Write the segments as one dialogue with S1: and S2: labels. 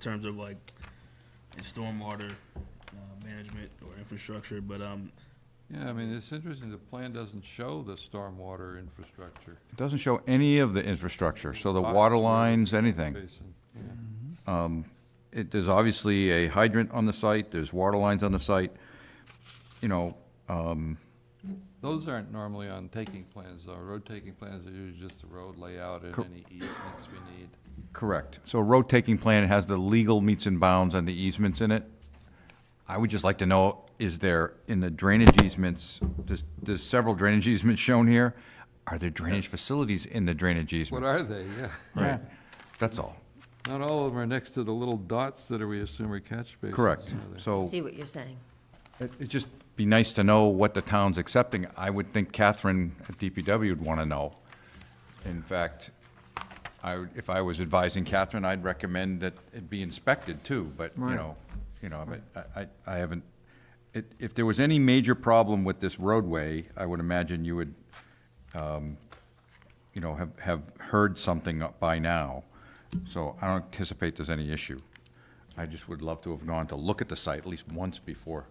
S1: terms of like in stormwater uh, management or infrastructure, but um,
S2: Yeah, I mean, it's interesting, the plan doesn't show the stormwater infrastructure
S3: It doesn't show any of the infrastructure, so the
S2: Box
S3: water
S2: where-
S3: lines, anything.
S2: basin. yeah.
S3: It, there's obviously a hydrant on the site, there's water lines on the site, you know,
S2: Those aren't normally on taking plans, though. Road taking plans are usually just the road layout and
S3: Cor-
S2: any easements we need.
S3: correct. So a road taking plan has the legal meets and bounds and the easements in it. I would just like to know, is there, in the drainage easements, there's, there's several drainage easements shown here. Are there drainage facilities in the drainage
S2: What
S3: easements?
S2: are they? Yeah.
S3: Right. That's all,
S2: Not all of them are next to the little dots that are, we assume are catch basins.
S3: correct.
S2: are they?
S3: So.
S4: See what you're saying.
S3: It- It'd just be nice to know what the town's accepting. I would think Catherine at DPW would want to know. In fact, I, would- if I was advising Catherine, I'd recommend that it be inspected too, but, you know, you know, but I, I I haven't, it, if there was any major problem with this roadway, I would imagine you would, um, you know, have, have heard something by now. So I don't anticipate there's any issue. I just would love to have gone to look at the site at least once before,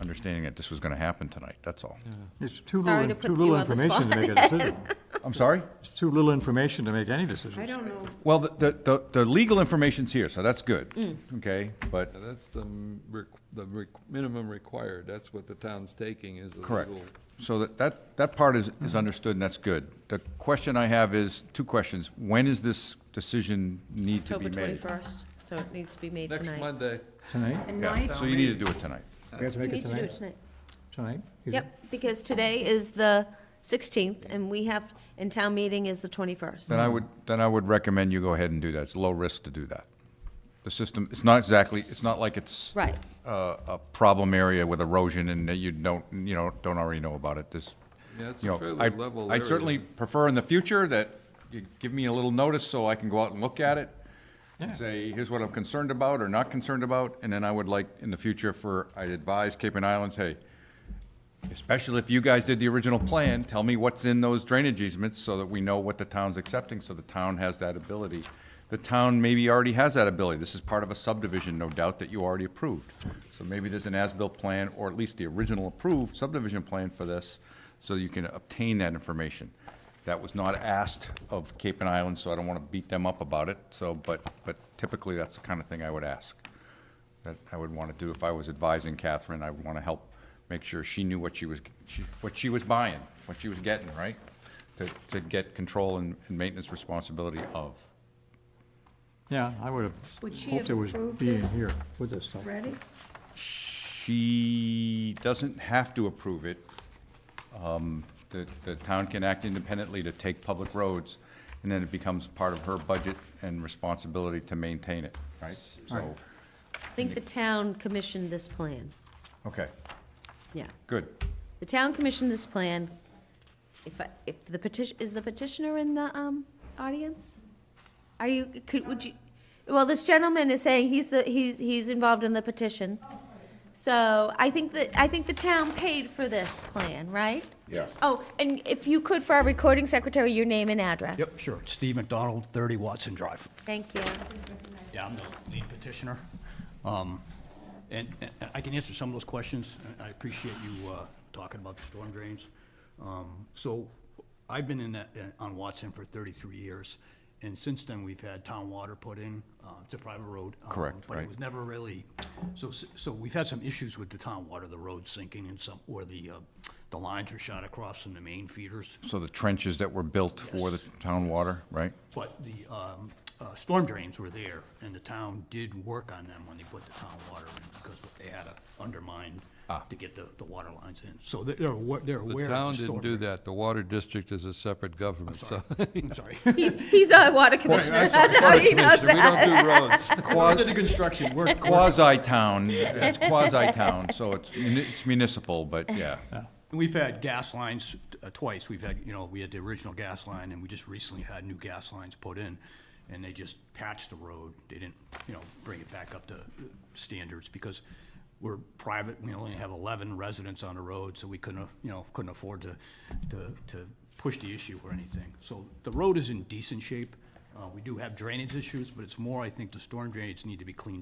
S3: understanding that this was gonna happen tonight, that's all.
S5: It's too
S4: Sorry to
S5: little,
S4: put
S5: too little
S4: you on the
S5: information to make a decision.
S3: I'm sorry?
S5: It's too little information to make any decision.
S6: I don't know,
S3: Well, the, the- the, the legal information's here, so that's good, okay? But,
S2: Yeah, That's the, m- req- the req- minimum required. That's what the town's taking is the
S3: correct.
S2: legal
S3: So that, that, that part is, is understood and that's good. The question I have is, two questions. When is this decision need to be
S4: October
S3: made?
S4: 21st, so it needs to be made
S2: Next
S4: tonight.
S2: Monday,
S5: Tonight?
S6: and
S3: Yeah,
S6: night,
S3: so you need to do it tonight.
S5: We have to
S4: We
S5: make it
S4: need to do it
S5: tonight?
S4: tonight.
S5: Tonight? You-
S4: Yep, because today is the 16th, and we have, and town meeting is the 21st.
S3: Then I would, then I would recommend you go ahead and do that. It's low risk to do that. The system, it's not exactly, it's not like it's
S4: Right.
S3: a, a problem area with erosion and that you don't, you know, don't already know about it, this,
S2: Yeah, it's
S3: you
S2: a
S3: know,
S2: fairly level
S3: I, I
S2: area.
S3: certainly prefer in the future that you give me a little notice so I can go out and look at it, and
S5: Yeah.
S3: say, here's what I'm concerned about or not concerned about, and then I would like, in the future, for, I'd advise Cape and Islands, hey, especially if you guys did the original plan, tell me what's in those drainage easements so that we know what the town's accepting, so the town has that ability. The town maybe already has that ability. This is part of a subdivision, no doubt, that you already approved. So maybe there's an as-built plan, or at least the original approved subdivision plan for this, so you can obtain that information. That was not asked of Cape and Island, so I don't want to beat them up about it, so, but, but typically, that's the kind of thing I would ask that I would want to do if I was advising Catherine. I would want to help make sure she knew what she was, she- what she was buying, what she was getting, right? To, to get control and and maintenance responsibility of.
S5: Yeah, I would have
S6: Would she
S5: hoped
S6: have
S5: it was
S6: approved
S5: being
S6: this?
S5: here with this stuff.
S6: ready?
S3: She doesn't have to approve it. Um, The, the town can act independently to take public roads, and then it becomes part of her budget and responsibility to maintain it, right? So,
S4: I think the town commissioned this plan,
S3: okay,
S4: yeah.
S3: good.
S4: The town commissioned this plan. If, I- if the petition, is the petitioner in the, um, audience? Are you, could, would you, well, this gentleman is saying he's the, he's, he's involved in the petition. So I think that, I think the town paid for this plan, right?
S7: Yes.
S4: Oh, and if you could, for our recording secretary, your name and address.
S7: Yep, sure. Steve McDonald, 30 Watson Drive.
S4: Thank you.
S7: Yeah, I'm the lead petitioner. Um, And and I can answer some of those questions. I I appreciate you uh, talking about the storm drains. Um, So I've been in that, in- on Watson for 33 years, and since then, we've had town water put in. uh, It's a private road. um,
S3: Correct,
S7: But
S3: right.
S7: it was never really, so, s- so we've had some issues with the town water, the road sinking and some, where the, uh, the lines are shot across from the main feeders.
S3: So the trenches that were built for the town water, right?
S7: But the um, uh, storm drains were there, and the town did work on them when they put the town water in, because they had to undermine to get the, the water lines in. So they're, they're awa- they're
S2: The
S7: aware
S2: town
S7: of the
S2: didn't
S7: storm.
S2: do
S7: drain.
S2: that. The water district is a separate government, so.
S7: I'm sorry.
S4: He's, he's our water commissioner. That's how he knows
S2: We
S4: that.
S2: don't do roads.
S7: Under the construction, we're,
S3: quasi-town, it's quasi-town, so it's muni- it's municipal, but yeah.
S7: we've had gas lines uh, twice. We've had, you know, we had the original gas line, and we just recently had new gas lines put in, and they just patched the road. They didn't, you know, bring it back up to standards, because we're private, we only have eleven residents on the road, so we couldn't, you know, couldn't afford to, to, to push the issue or anything. So the road is in decent shape. Uh, We do have drainage issues, but it's more, I think, the storm drains need to be cleaned